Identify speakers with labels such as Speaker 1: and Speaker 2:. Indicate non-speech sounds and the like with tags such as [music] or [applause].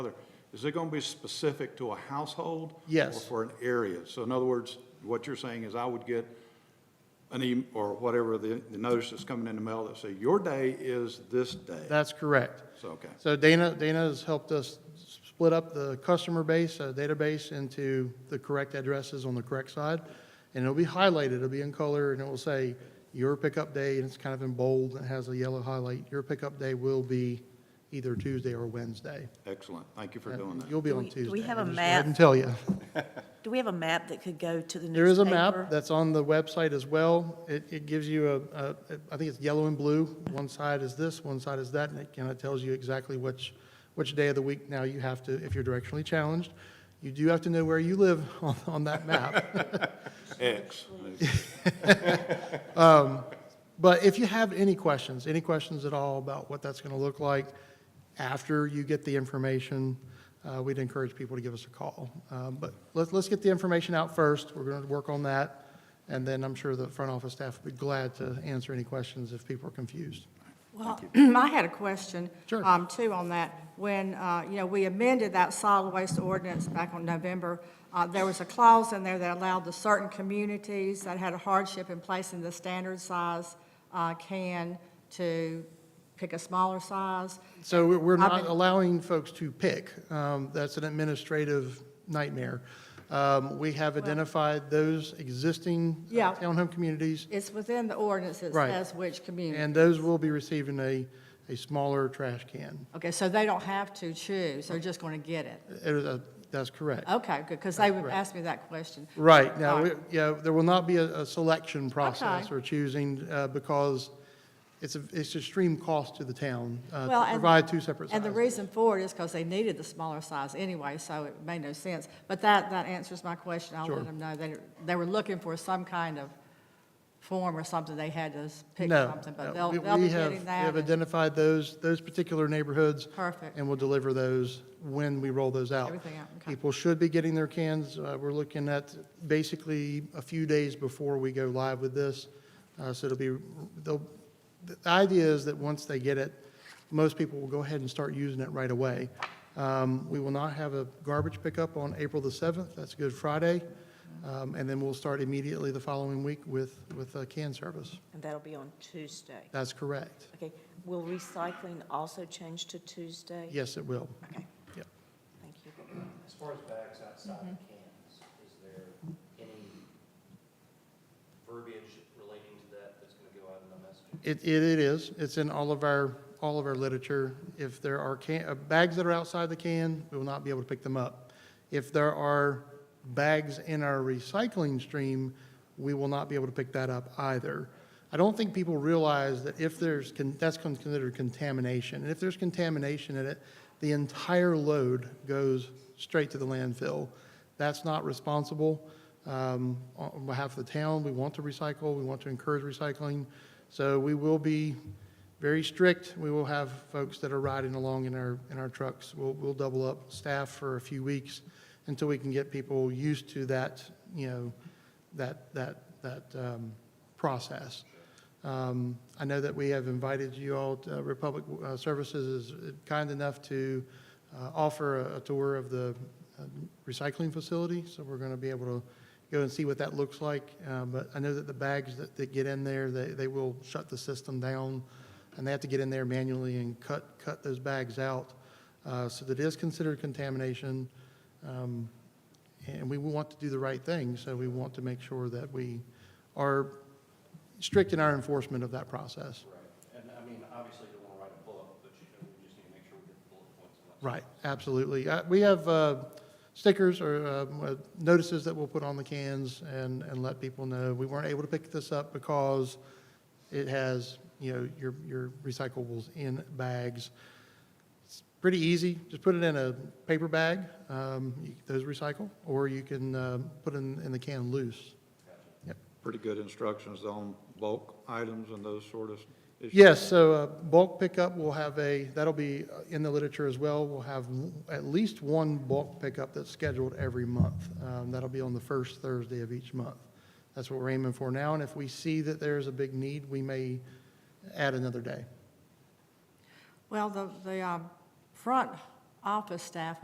Speaker 1: Is it going to be specific to a household?
Speaker 2: Yes.
Speaker 1: Or for an area? So in other words, what you're saying is I would get an e, or whatever, the, the notice that's coming in the mail that say, your day is this day.
Speaker 2: That's correct.
Speaker 1: So, okay.
Speaker 2: So Dana, Dana has helped us split up the customer base, uh, database into the correct addresses on the correct side. And it'll be highlighted, it'll be in color, and it will say, your pickup day, and it's kind of in bold, and it has a yellow highlight. Your pickup day will be either Tuesday or Wednesday.
Speaker 1: Excellent. Thank you for doing that.
Speaker 2: You'll be
Speaker 3: Do
Speaker 2: on
Speaker 3: we-
Speaker 2: Tuesday.
Speaker 3: do we have a
Speaker 2: I'll just go ahead
Speaker 3: map?
Speaker 2: and tell you.
Speaker 3: Do we have a map that could go to the newspaper?
Speaker 2: There is a map that's on the website as well. It, it gives you a- a, I think it's yellow and blue. One side is this, one side is that, and it kind of tells you exactly which, which day of the week now you have to, if you're directionally challenged. You do have to know where you live [laughs] on, on that map.
Speaker 1: X.
Speaker 2: But if you have any questions, any questions at all about what that's going to look like after you get the information, uh, we'd encourage people to give us a call. Um, But let's, let's get the information out first. We're going to work on that. And then I'm sure the front office staff would be glad to answer any questions if people are confused.
Speaker 4: Well, [clears throat] I had a question.
Speaker 2: Sure.
Speaker 4: um, Too, on that. When, uh, you know, we amended that solid waste ordinance back on November, uh, there was a clause in there that allowed the certain communities that had a hardship in placing the standard size uh, can to pick a smaller size.
Speaker 2: So we're- we're
Speaker 4: I've
Speaker 2: not
Speaker 4: been-
Speaker 2: allowing folks to pick. Um, That's an administrative nightmare. Um, We have identified those existing uh,
Speaker 4: Yeah.
Speaker 2: townhome communities,
Speaker 4: It's within the ordinance that
Speaker 2: Right.
Speaker 4: says which community.
Speaker 2: and those will be receiving a, a smaller trash can.
Speaker 4: Okay, so they don't have to choose, they're just going to get it.
Speaker 2: It is a- Uh, That's correct.
Speaker 4: Okay, good, because they would
Speaker 2: Correct.
Speaker 4: ask me that question.
Speaker 2: Right, now,
Speaker 4: Oh. All
Speaker 2: we-
Speaker 4: right.
Speaker 2: yeah, there will not be a, a selection process
Speaker 4: Okay.
Speaker 2: or choosing, uh, because it's, a it's extreme cost to the town uh,
Speaker 4: Well,
Speaker 2: to
Speaker 4: and-
Speaker 2: provide two separate sizes.
Speaker 4: And the reason for it is because they needed the smaller size anyway, so it made no sense. But that, that answers my question. I'll
Speaker 2: Sure.
Speaker 4: let them know. They, they were looking for some kind of form or something. They had to s- pick
Speaker 2: No,
Speaker 4: something,
Speaker 2: no.
Speaker 4: but they'll,
Speaker 2: We-
Speaker 4: they'll
Speaker 2: we
Speaker 4: be
Speaker 2: have-
Speaker 4: getting
Speaker 2: We have
Speaker 4: that.
Speaker 2: identified those, those particular neighborhoods.
Speaker 4: Perfect.
Speaker 2: And we'll deliver those when we roll those out.
Speaker 4: Everything out, okay.
Speaker 2: People should be getting their cans. Uh, We're looking at basically a few days before we go live with this. Uh, So it'll be, they'll, the idea is that once they get it, most people will go ahead and start using it right away. Um, We will not have a garbage pickup on April the 7th. That's Good Friday. Um, And then we'll start immediately the following week with, with uh, can service.
Speaker 3: And that'll be on Tuesday.
Speaker 2: That's correct.
Speaker 3: Okay, will recycling also change to Tuesday?
Speaker 2: Yes, it will.
Speaker 3: Okay,
Speaker 2: Yep.
Speaker 3: thank you.
Speaker 5: As far as bags outside the cans, is there any verbiage relating to that that's going to go out in the message?
Speaker 2: It, it it is. It's in all of our, all of our literature. If there are can, uh, bags that are outside the can, we will not be able to pick them up. If there are bags in our recycling stream, we will not be able to pick that up either. I don't think people realize that if there's, con- that's con- considered contamination. And if there's contamination in it, the entire load goes straight to the landfill. That's not responsible. Um, On on behalf of the town, we want to recycle, we want to encourage recycling. So we will be very strict. We will have folks that are riding along in our, in our trucks. We'll, we'll double up staff for a few weeks until we can get people used to that, you know, that, that, that um, process. Um, I know that we have invited you all, to- Republic uh, Services is kind enough to uh, offer a- a tour of the uh, recycling facility, so we're going to be able to go and see what that looks like. Uh, But I know that the bags that, that get in there, they, they will shut the system down, and they have to get in there manually and cut, cut those bags out. Uh, So that is considered contamination, um, and we want to do the right thing, so we want to make sure that we are strict in our enforcement of that process.
Speaker 5: Right. And I mean, obviously, you don't want to write a bullet, but you know, we just need to make sure we get the bullet points. and what's-
Speaker 2: Right, absolutely. Uh, We have uh, stickers or um, uh, notices that we'll put on the cans and, and let people know. We weren't able to pick this up because it has, you know, your, your recyclables in bags. It's pretty easy, just put it in a paper bag, um, you- those recycle, or you can um, put it in, in the can loose.
Speaker 1: Pretty good instructions on bulk items and those sort of issues.
Speaker 2: Yes, so uh, bulk pickup will have a, that'll be uh, in the literature as well. We'll have w- at least one bulk pickup that's scheduled every month. Um, That'll be on the first Thursday of each month. That's what we're aiming for now, and if we see that there's a big need, we may add another day.
Speaker 4: Well, the, the um, front office staff